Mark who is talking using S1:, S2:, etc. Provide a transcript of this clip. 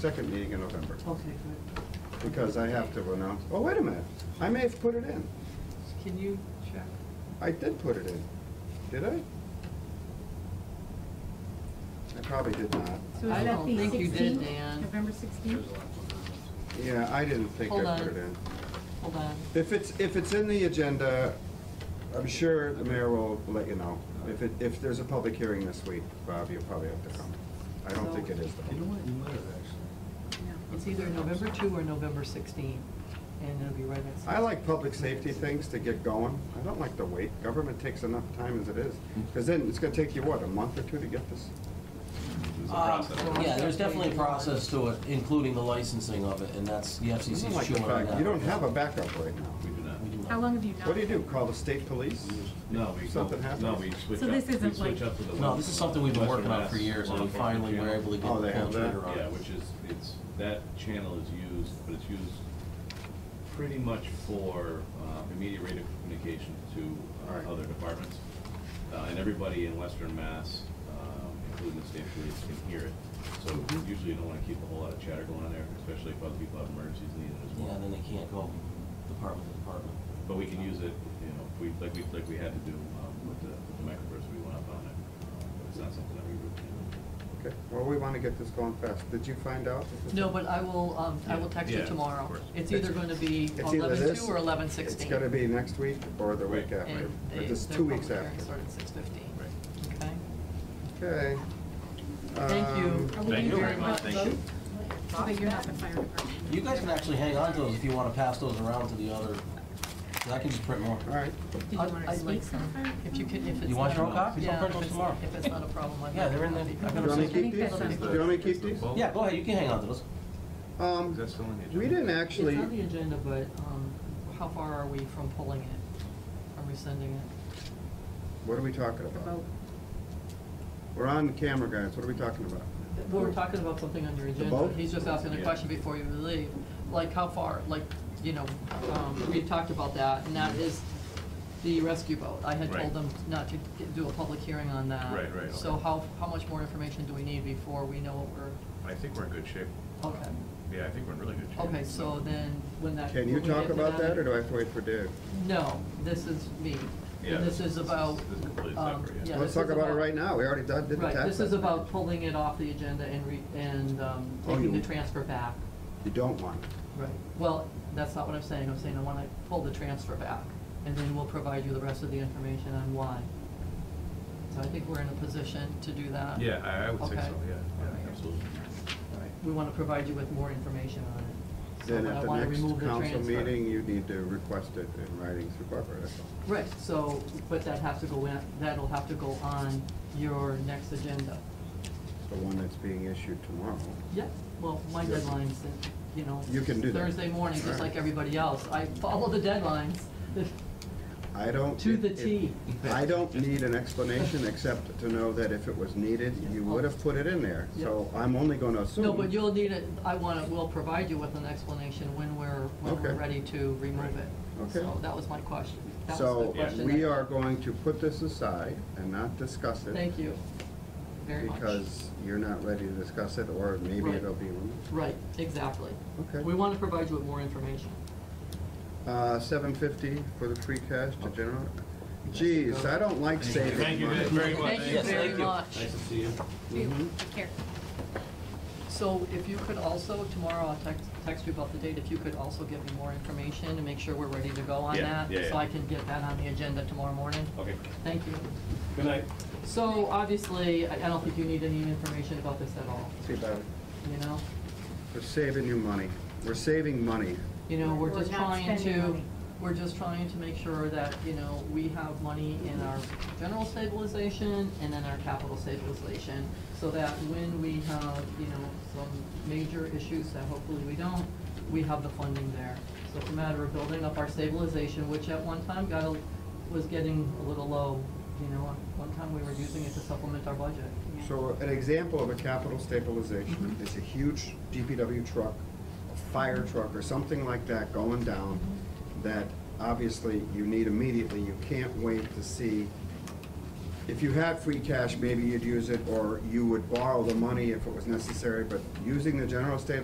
S1: second meeting in November,
S2: Okay, good.
S1: because I have to announce, oh, wait a minute, I may have put it in.
S2: Can you check?
S1: I did put it in, did I? I probably did not.
S3: So is
S2: I
S3: that
S2: don't
S3: the
S2: think you did,
S3: 16th?
S2: Dan.
S3: November 16th?
S1: Yeah, I didn't think
S2: Hold
S1: I
S2: on.
S1: put it in.
S2: Hold on.
S1: If it's, if it's in the agenda, I'm sure the mayor will let you know. If it, if there's a public hearing this week, Bob, you'll probably have to come. I don't think it is
S4: You know
S1: though.
S4: what, you might have actually.
S2: It's either November 2 or November 16, and it'll be right next.
S1: I like public safety things to get going. I don't like to wait. Government takes enough time as it is. Because then it's gonna take you, what, a month or two to get this?
S5: There's a
S2: Uh,
S5: process.
S2: well-
S6: Yeah, there's definitely a process to it, including the licensing of it, and that's, the
S1: You
S6: FCC's
S1: don't like the
S6: chewing on
S1: fact-
S6: that.
S1: You don't have a backup right now.
S5: We do not.
S6: We do
S3: How
S6: not.
S3: long have you not?
S1: What do you do? Call the state police?
S5: No, we go,
S1: Something happens.
S5: no, we switch
S3: So
S5: up,
S3: this
S5: we
S3: isn't
S5: switch
S3: like-
S5: up to the.
S6: No, this is something we've been
S5: Western
S6: working on for
S5: Mass
S6: years, and
S5: law
S6: we
S5: enforcement
S6: finally were
S5: channel.
S6: able to
S1: Oh,
S6: get
S1: they
S6: the
S1: have
S6: full
S1: that?
S6: trigger on
S5: Yeah,
S6: it.
S5: which is, it's, that channel is used, but it's used pretty much for uh, immediate rate of communication to uh,
S1: Alright.
S5: other departments. Uh, And everybody in Western Mass, um, including the state police, can hear it. So
S4: Mm-hmm.
S5: usually you don't want to keep a whole lot of chatter going on there, especially if other people have emergencies needed as
S6: Yeah,
S5: well.
S6: then they can't go department to department.
S5: But we can use it, you know, if we, like we, like we had to do um, with the with the microburst, we went up on it. Um, But it's not something that we routinely do.
S1: Okay, well, we wanna get this going fast. Did you find out? if it's-
S2: No, but I will, um, I will text
S5: Yeah,
S2: you
S5: of
S2: tomorrow.
S5: course.
S2: It's either going to be
S1: It's either
S2: eleven two
S1: this-
S2: or eleven
S1: It's
S2: sixteen.
S1: gonna be next week or the week
S5: Right.
S1: after, but it's two weeks after.
S2: Started six fifteen.
S5: Right.
S2: Okay?
S1: Okay. Um,
S2: Thank you.
S3: Are we
S5: Thank
S3: gonna
S5: you
S3: do
S5: very
S3: a
S5: much. Thank you.
S3: vote? But you're not the fire department.
S6: You guys can actually hang on to those if you want to pass those around to the other, 'cause I can just print more.
S1: All right,
S3: Did you
S2: I'd-
S3: want to
S2: I'd
S3: speak
S2: like
S3: to the
S2: some.
S3: fire
S2: If you can, if it's.
S6: You want
S2: not
S6: your
S2: a-
S6: own copies? I'll
S2: yeah,
S6: print
S2: if
S6: those
S2: it's-
S6: tomorrow.
S2: If it's not a problem, I'd.
S6: Yeah,
S2: like
S6: they're
S2: a
S6: in there.
S2: copy.
S6: I
S1: do you
S6: got
S1: want me to
S3: I
S1: keep
S3: think
S1: these?
S3: that sounds
S1: Do you want me to keep these?
S6: Yeah, go ahead, you can hang on to those.
S1: Um,
S4: That's still on the agenda.
S1: we didn't actually,
S2: It's on the agenda, but um, how far are we from pulling it? Are we sending it?
S1: what are we talking about?
S3: Vote.
S1: We're on camera, guys, what are we talking about?
S2: We were talking about something on your agenda.
S1: vote?
S2: He's just asking a
S5: Yeah.
S2: question before you leave. Like, how far, like, you know, um, we had talked about that, and that is the rescue boat. I had told
S5: Right.
S2: them not to g- do a public hearing on that.
S5: Right, right,
S2: So
S5: okay.
S2: how, how much more information do we need before we know what
S5: I think we're in good shape.
S2: we're, okay.
S5: Yeah, I think we're in really good shape.
S2: Okay, so then, when that.
S1: Can you
S2: when we get
S1: talk
S2: to
S1: about that, or do I have to wait for Dave?
S2: No, this is me.
S5: Yeah,
S2: And this
S5: this
S2: is
S5: is-
S2: about.
S5: this is completely
S2: um,
S5: separate, yeah.
S2: yeah,
S1: Let's
S2: this
S1: talk
S2: is
S1: about it right now, we already done- did the tax.
S2: Right, this is
S1: levy.
S2: about pulling it off the agenda and re, and, um,
S1: Oh,
S2: taking
S1: you-
S2: the transfer back.
S1: You don't want it.
S2: Right. Well, that's not what I'm saying, I'm saying I wanna pull the transfer back, and then we'll provide you the rest of the information on why. So I think we're in a position to do that.
S5: Yeah, I, I would say
S2: uh, Okay.
S5: so, yeah, yeah, absolutely.
S2: We wanna provide you with more information on it. So
S1: Then
S2: but I
S1: at the
S2: wanna
S1: next
S2: remove the
S1: council
S2: transfer.
S1: meeting, you need to request it in writing through Barbara, that's all.
S2: Right, so, but that has to go in, that'll have to go on your next agenda.
S1: The one that's being issued tomorrow.
S2: Yeah, well, my
S1: Yeah.
S2: deadline's, uh, you know.
S1: You can do that.
S2: Thursday morning, just
S1: Alright.
S2: like everybody else. I follow the deadlines.
S1: I don't.
S2: To the
S1: it- it-
S2: T.
S1: I don't need an explanation, except to know that if it was needed, you would have put it in there. So I'm only gonna assume.
S2: No, but you'll need it, I want to, we'll provide you with an explanation when we're, when we're
S1: Okay.
S2: ready to remove it.
S1: Okay.
S2: So that was my question. That was the
S1: So
S2: question.
S1: we
S2: that-
S1: are going to put this aside and not discuss it.
S2: Thank you very much.
S1: Because you're not ready to discuss it, or maybe
S2: Right.
S1: it'll be removed.
S2: Right, exactly.
S1: Okay.
S2: We want to provide you with more information.
S1: Uh, seven fifty for the free cash
S2: Oh.
S1: to general. Geez, I don't like saving money. Mm-hmm.
S5: Thank you very much.
S2: Thank you very much.
S5: Nice to see you.
S3: You, Take care.
S2: So if you could also, tomorrow I'll text, text you about the date, if you could also give me more information and make sure we're ready to go on
S5: Yeah,
S2: that.
S5: yeah,
S2: So
S5: yeah.
S2: I can get that on the agenda tomorrow morning.
S5: Okay,
S2: Thank you.
S5: good night.
S2: So obviously, I I don't think you need any information about this at all,
S1: See, Bob,
S2: you know?
S1: We're saving you money. We're saving money.
S2: You know, we're
S3: We're
S2: just
S3: not
S2: trying
S3: spending
S2: to,
S3: money.
S2: we're just trying to make sure that, you know, we have money in our general stabilization and in our capital stabilization, so that when we have, you know, some major issues that hopefully we don't, we have the funding there. So it's a matter of building up our stabilization, which at one time got, a was getting a little low, you know, at one time we were using it to supplement our budget.
S1: So an example of a capital stabilization is a huge DPW truck, a fire truck, or something like that going down that obviously you need immediately. You can't wait to see if you had free cash, maybe you'd use it, or you would borrow the money if it was necessary, but using the general stabilization